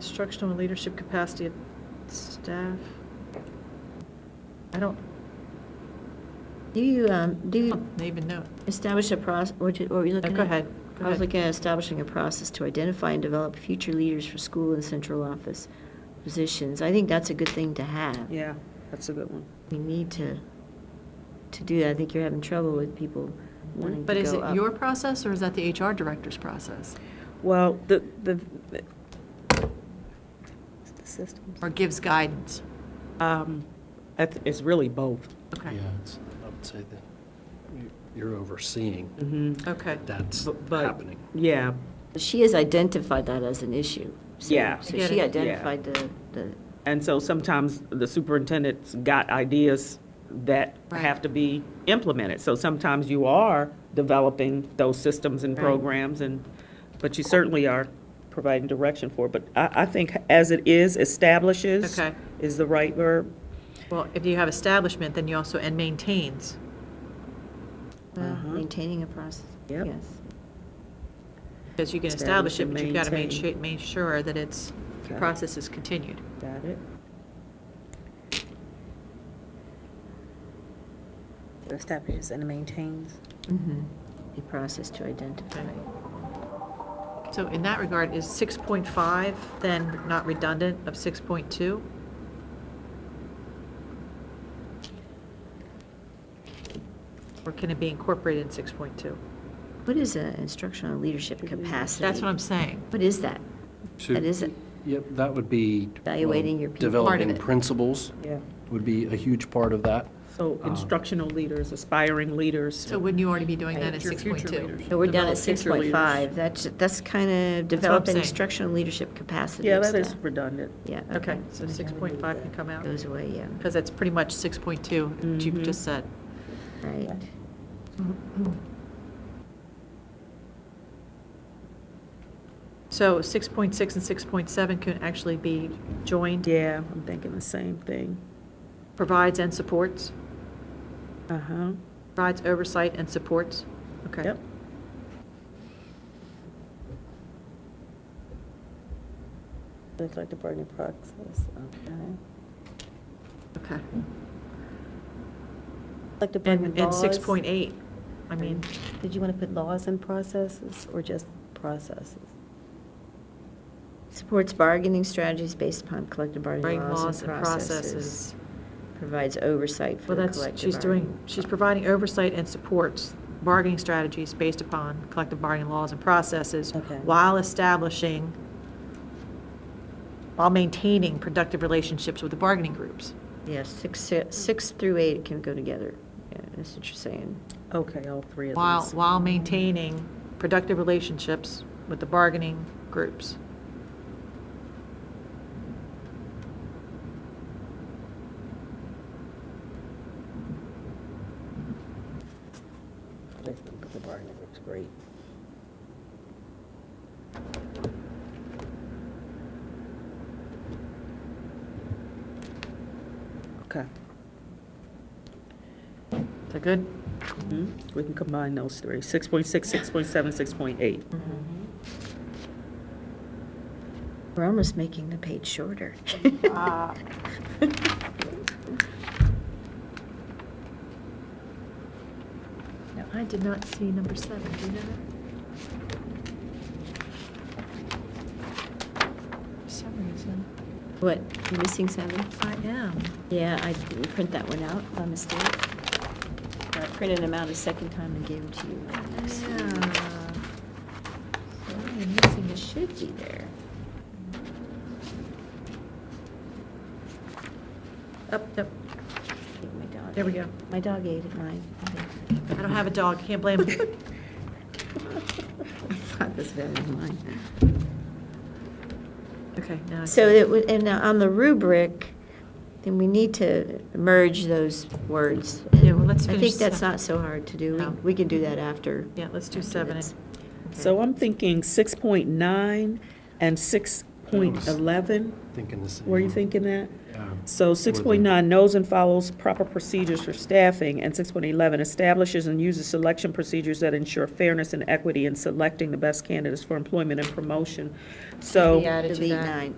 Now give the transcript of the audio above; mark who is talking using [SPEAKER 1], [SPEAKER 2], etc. [SPEAKER 1] Instructional and leadership capacity of staff. I don't,
[SPEAKER 2] Do you, um, do
[SPEAKER 1] I
[SPEAKER 2] you
[SPEAKER 1] don't even know.
[SPEAKER 2] establish a process, what you- what were you looking at?
[SPEAKER 1] Go ahead, go
[SPEAKER 2] I was
[SPEAKER 1] ahead.
[SPEAKER 2] looking at establishing a process to identify and develop future leaders for school and central office positions. I think that's a good thing to have.
[SPEAKER 3] Yeah, that's a good one.
[SPEAKER 2] We need to, to do that. I think you're having trouble with people wanting to go up.
[SPEAKER 4] But is it your process or is that the HR director's process?
[SPEAKER 3] Well, the, the, the systems.
[SPEAKER 4] Or gives guidance?
[SPEAKER 3] Um, I th- It's really both.
[SPEAKER 4] Okay,
[SPEAKER 5] Yeah, it's, I would say that you- you're overseeing
[SPEAKER 3] Mhm.
[SPEAKER 4] okay.
[SPEAKER 5] that's
[SPEAKER 3] Bu- but-
[SPEAKER 5] happening.
[SPEAKER 3] Yeah,
[SPEAKER 2] She has identified that as an issue. So-
[SPEAKER 3] Yeah.
[SPEAKER 2] So
[SPEAKER 4] I get
[SPEAKER 2] she
[SPEAKER 4] it.
[SPEAKER 2] identified the, the,
[SPEAKER 3] and so sometimes the superintendent's got ideas that
[SPEAKER 4] Right.
[SPEAKER 3] have to be implemented. So sometimes you are developing those systems and
[SPEAKER 4] Right.
[SPEAKER 3] programs and, but you certainly are providing direction for it. But I, I think as it is, establishes
[SPEAKER 1] Okay.
[SPEAKER 3] is the right verb.
[SPEAKER 1] Well, if you have establishment, then you also, and maintains.
[SPEAKER 2] uh,
[SPEAKER 3] Uh-huh.
[SPEAKER 2] maintaining a process.
[SPEAKER 3] Yep.
[SPEAKER 2] Yes.
[SPEAKER 1] Because you can
[SPEAKER 3] Establish
[SPEAKER 1] establish it,
[SPEAKER 3] and
[SPEAKER 1] but you've got to make sure,
[SPEAKER 3] maintain.
[SPEAKER 1] make sure that it's, the
[SPEAKER 3] Okay.
[SPEAKER 1] process is continued.
[SPEAKER 3] Got it?
[SPEAKER 6] establishes and maintains.
[SPEAKER 4] Mm-hmm.
[SPEAKER 2] Mhm. A process to identify.
[SPEAKER 1] So in that regard, is 6.5 then not redundant of 6.2? Or can it be incorporated in 6.2?
[SPEAKER 2] What is an instructional leadership capacity?
[SPEAKER 1] That's what I'm saying.
[SPEAKER 2] What is that?
[SPEAKER 5] So-
[SPEAKER 2] That is,
[SPEAKER 5] Yep, that would be. well,
[SPEAKER 2] Evaluating your people.
[SPEAKER 4] Part of
[SPEAKER 5] Developing
[SPEAKER 4] it.
[SPEAKER 5] principles
[SPEAKER 3] Yeah. Um,
[SPEAKER 5] would be a huge part of that.
[SPEAKER 3] So instructional leaders, aspiring leaders.
[SPEAKER 4] So wouldn't you already be doing that at
[SPEAKER 7] Your future
[SPEAKER 4] 6.2?
[SPEAKER 7] leaders.
[SPEAKER 2] so we're down at
[SPEAKER 7] Develop future leaders.
[SPEAKER 2] 6.5. That's, that's kind of
[SPEAKER 1] That's what I'm
[SPEAKER 2] developing
[SPEAKER 1] saying.
[SPEAKER 2] instructional leadership capacity.
[SPEAKER 3] Yeah,
[SPEAKER 2] of
[SPEAKER 3] that is
[SPEAKER 2] staff.
[SPEAKER 3] redundant.
[SPEAKER 2] Yeah.
[SPEAKER 1] Okay, so 6.5 can come out,
[SPEAKER 2] Goes away, yeah,
[SPEAKER 1] because that's pretty much 6.2, that you've
[SPEAKER 3] Mhm.
[SPEAKER 1] just said.
[SPEAKER 2] right.
[SPEAKER 1] So 6.6 and 6.7 can actually be joined,
[SPEAKER 3] Yeah, I'm thinking the same thing.
[SPEAKER 1] provides and supports,
[SPEAKER 3] Uh-huh.
[SPEAKER 1] provides oversight and supports. Okay.
[SPEAKER 3] Yep.
[SPEAKER 6] Looks like the burning process, okay.
[SPEAKER 1] Okay.
[SPEAKER 6] Like the
[SPEAKER 1] And,
[SPEAKER 6] burning
[SPEAKER 1] and
[SPEAKER 6] laws.
[SPEAKER 1] 6.8, I mean,
[SPEAKER 6] Did you want to put laws and processes or just processes?
[SPEAKER 2] Supports bargaining strategies based upon collective
[SPEAKER 1] right,
[SPEAKER 2] bargaining
[SPEAKER 1] laws and processes.
[SPEAKER 2] Provides oversight for
[SPEAKER 1] Well,
[SPEAKER 2] the
[SPEAKER 1] that's,
[SPEAKER 2] collective
[SPEAKER 1] she's doing,
[SPEAKER 2] bargaining.
[SPEAKER 1] she's providing oversight and supports bargaining strategies based upon collective bargaining laws and processes
[SPEAKER 6] Okay.
[SPEAKER 1] while establishing, while maintaining productive relationships with the bargaining groups.
[SPEAKER 2] Yeah, six, six through eight can go together. Yeah, that's what you're saying.
[SPEAKER 3] Okay, all three of
[SPEAKER 1] While,
[SPEAKER 3] these.
[SPEAKER 1] while maintaining productive relationships with the bargaining groups.
[SPEAKER 6] The bargaining group's great.
[SPEAKER 3] Okay.
[SPEAKER 1] Is that good?
[SPEAKER 3] Mhm. We can combine those three, 6.6, 6.7, 6.8.
[SPEAKER 2] We're almost making the page shorter.
[SPEAKER 1] No, I did not see number seven, do you know that? For some reason,
[SPEAKER 2] What, you missing seven?
[SPEAKER 1] I am.
[SPEAKER 2] Yeah, I didn't print that one out by mistake. I printed them out a second time and gave them to you.
[SPEAKER 1] Yeah.
[SPEAKER 2] So
[SPEAKER 1] So
[SPEAKER 2] I'm missing, it should be there.
[SPEAKER 1] Up, up.
[SPEAKER 2] My dog
[SPEAKER 1] There we
[SPEAKER 2] ate-
[SPEAKER 1] go.
[SPEAKER 2] My dog ate it, mine.
[SPEAKER 1] I don't have a dog, can't blame him.
[SPEAKER 2] I thought this was mine.
[SPEAKER 1] Okay, now. I
[SPEAKER 2] So
[SPEAKER 1] see.
[SPEAKER 2] it would, and now on the rubric, then we need to merge those words.
[SPEAKER 1] Yeah, well, let's
[SPEAKER 2] I
[SPEAKER 1] finish
[SPEAKER 2] think that's
[SPEAKER 1] seven.
[SPEAKER 2] not so hard to do. We-
[SPEAKER 1] No.
[SPEAKER 2] We can do that after.
[SPEAKER 1] Yeah, let's do
[SPEAKER 2] after
[SPEAKER 1] seven
[SPEAKER 2] this.
[SPEAKER 1] and-
[SPEAKER 3] So I'm thinking 6.9 and 6.11.
[SPEAKER 5] Thinking the same.
[SPEAKER 3] Were you thinking that?
[SPEAKER 5] Yeah.
[SPEAKER 3] So 6.9 knows and follows proper procedures for staffing, and 6.11 establishes and uses selection procedures that ensure fairness and equity in selecting the best candidates for employment and promotion. So.
[SPEAKER 1] Added to
[SPEAKER 2] Delete
[SPEAKER 1] that.
[SPEAKER 2] nine.